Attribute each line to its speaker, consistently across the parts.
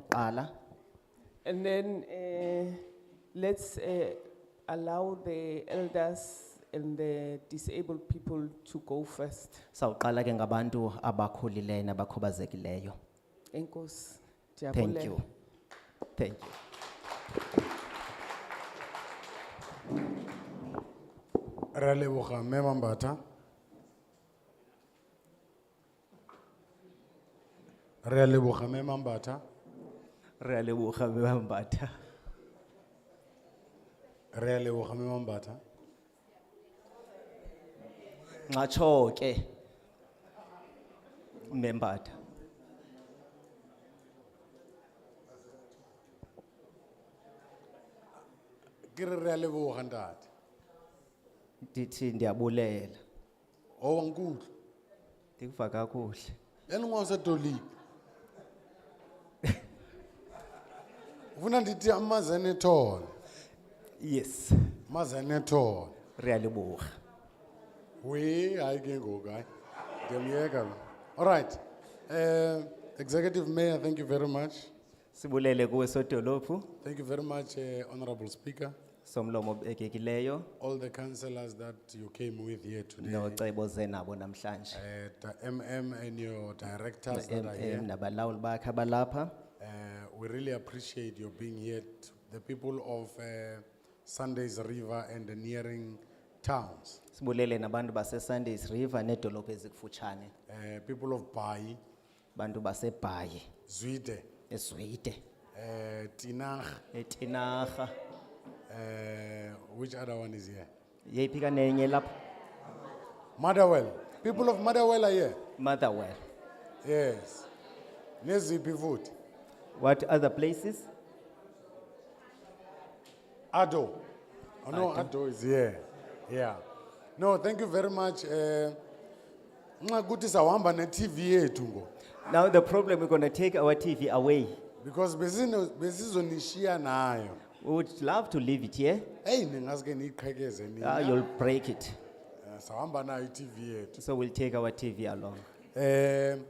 Speaker 1: okokuqala
Speaker 2: And then eh, let's eh, allow the elders and the disabled people to go first.
Speaker 1: sawuqala ke ngabantu abakhulileyo nabakhubazekileyo
Speaker 2: Enkos.
Speaker 1: thank you thank you
Speaker 3: ra leboga mme mambata re a leboga mme mambata
Speaker 1: re a leboga mme bambatha
Speaker 3: re a leboga mme mambata
Speaker 1: ngatsho ke mme mbatha
Speaker 3: ke re re a leboga ntate
Speaker 1: ndithi ndiyabulela
Speaker 3: owa nkutlwa E
Speaker 1: ndikuva kakuhle
Speaker 3: eningwa usedolile ufuna ndithi amazenethona
Speaker 1: yes
Speaker 3: amazenethona
Speaker 1: re a leboga
Speaker 3: we hayi ke ngoku hayi ndiyamyeka lo all right um executive mayor thank you very much
Speaker 1: sibulele kuwe sodolophu
Speaker 3: thank you very much uh, honorable speaker
Speaker 1: somlomo obekekileyo
Speaker 3: all the councillors that you came with here today,
Speaker 1: nocebo zenabo namhlanje
Speaker 3: uh, the MM and your directors that are
Speaker 1: MM
Speaker 3: here,
Speaker 1: nabalawuli bakhe abalapha
Speaker 3: uh, we really appreciate your being here. t- The people of uh, Sundays River and the nearing towns,
Speaker 1: sibulele nabantu basesundays river needolophu ezikufutshane
Speaker 3: uh, people of Bai,
Speaker 1: bantu basebhayi
Speaker 3: Zuide,
Speaker 1: ezwide
Speaker 3: uh, Tinag,
Speaker 1: etinarha
Speaker 3: uh, which other one is here?
Speaker 1: yeyiphi kanenye lapha
Speaker 3: Motherwell. People of Motherwell are here.
Speaker 1: motherwell
Speaker 3: Yes. Nezipi food.
Speaker 1: what other places
Speaker 3: Ado. Oh, no, Ado is here. Yeah. No, thank you very much. Uh, nxa kuthi sawuhamba ne-tv yethu ngo
Speaker 1: now the problem we're going to take our tv away
Speaker 3: because besino- besizonishiya nayo
Speaker 1: we would love to leave it here
Speaker 3: eyi ningaske niyiqhekeze
Speaker 1: Ah,
Speaker 3: nina
Speaker 1: you'll break it
Speaker 3: Eh, sawuhamba nayo i-tv yethu
Speaker 1: so we'll take our tv along
Speaker 3: um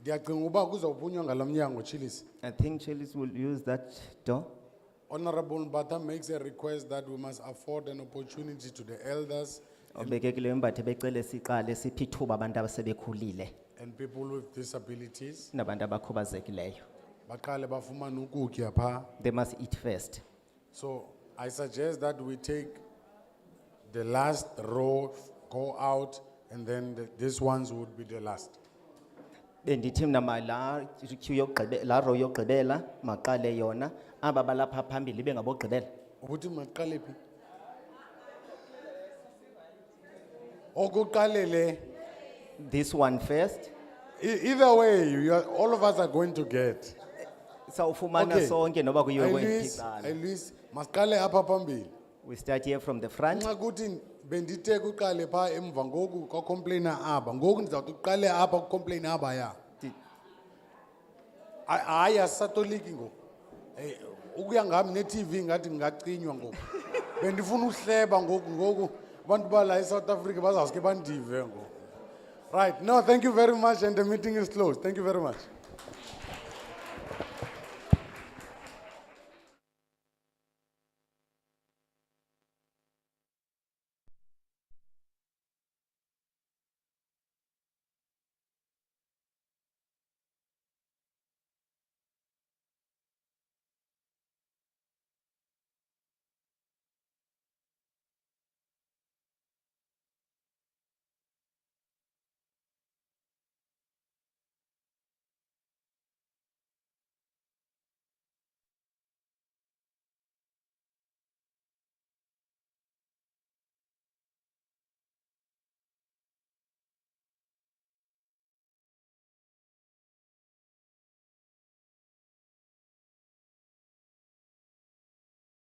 Speaker 3: ndiyacinga uba kuzawuphunywa ngalo mnyango chilisi
Speaker 1: i think chelis will use that door
Speaker 3: honorable bata makes a request that we must afford an opportunity to the elders
Speaker 1: obekekileyo mbathe becele siqale siphi ithuba abantu asebekhulile
Speaker 3: and people with disabilities
Speaker 1: nabantu abakhubazekileyo
Speaker 3: baqale bafumane ukutya phaa
Speaker 1: they must eat first
Speaker 3: So I suggest that we take the last row, go out, and then the- these ones would be the last.
Speaker 1: bendithi mna mala queue yokugqibe- laa row yokugqibela maqale yona aba balapha phambili ibe ngabogqibela
Speaker 3: Ukuthi maqale phi? Okuqalele,
Speaker 1: this one first
Speaker 3: e- either way, you are, all of us are going to get.
Speaker 1: sawufumana sonke noba kuyiwe
Speaker 3: Luis,
Speaker 1: kwempixano
Speaker 3: Luis, masiqale apha phambili.
Speaker 1: we start here from the front
Speaker 3: Nxa kuthi bendithe kuqale pha emva ngoku kwa complainer aba, ngoku ndizawuthi uqale apha ku complainer aba ya.
Speaker 1: Di-
Speaker 3: Ay- hayi asisatoliki ngoku Eh, ukuya ngami ne-tv ngathi ngingacinywa ngoku bendifuna uhleba ngoku ngoku abantu bala e-south africa bazawuske bandive ngoku right no thank you very much and the meeting is closed thank you very much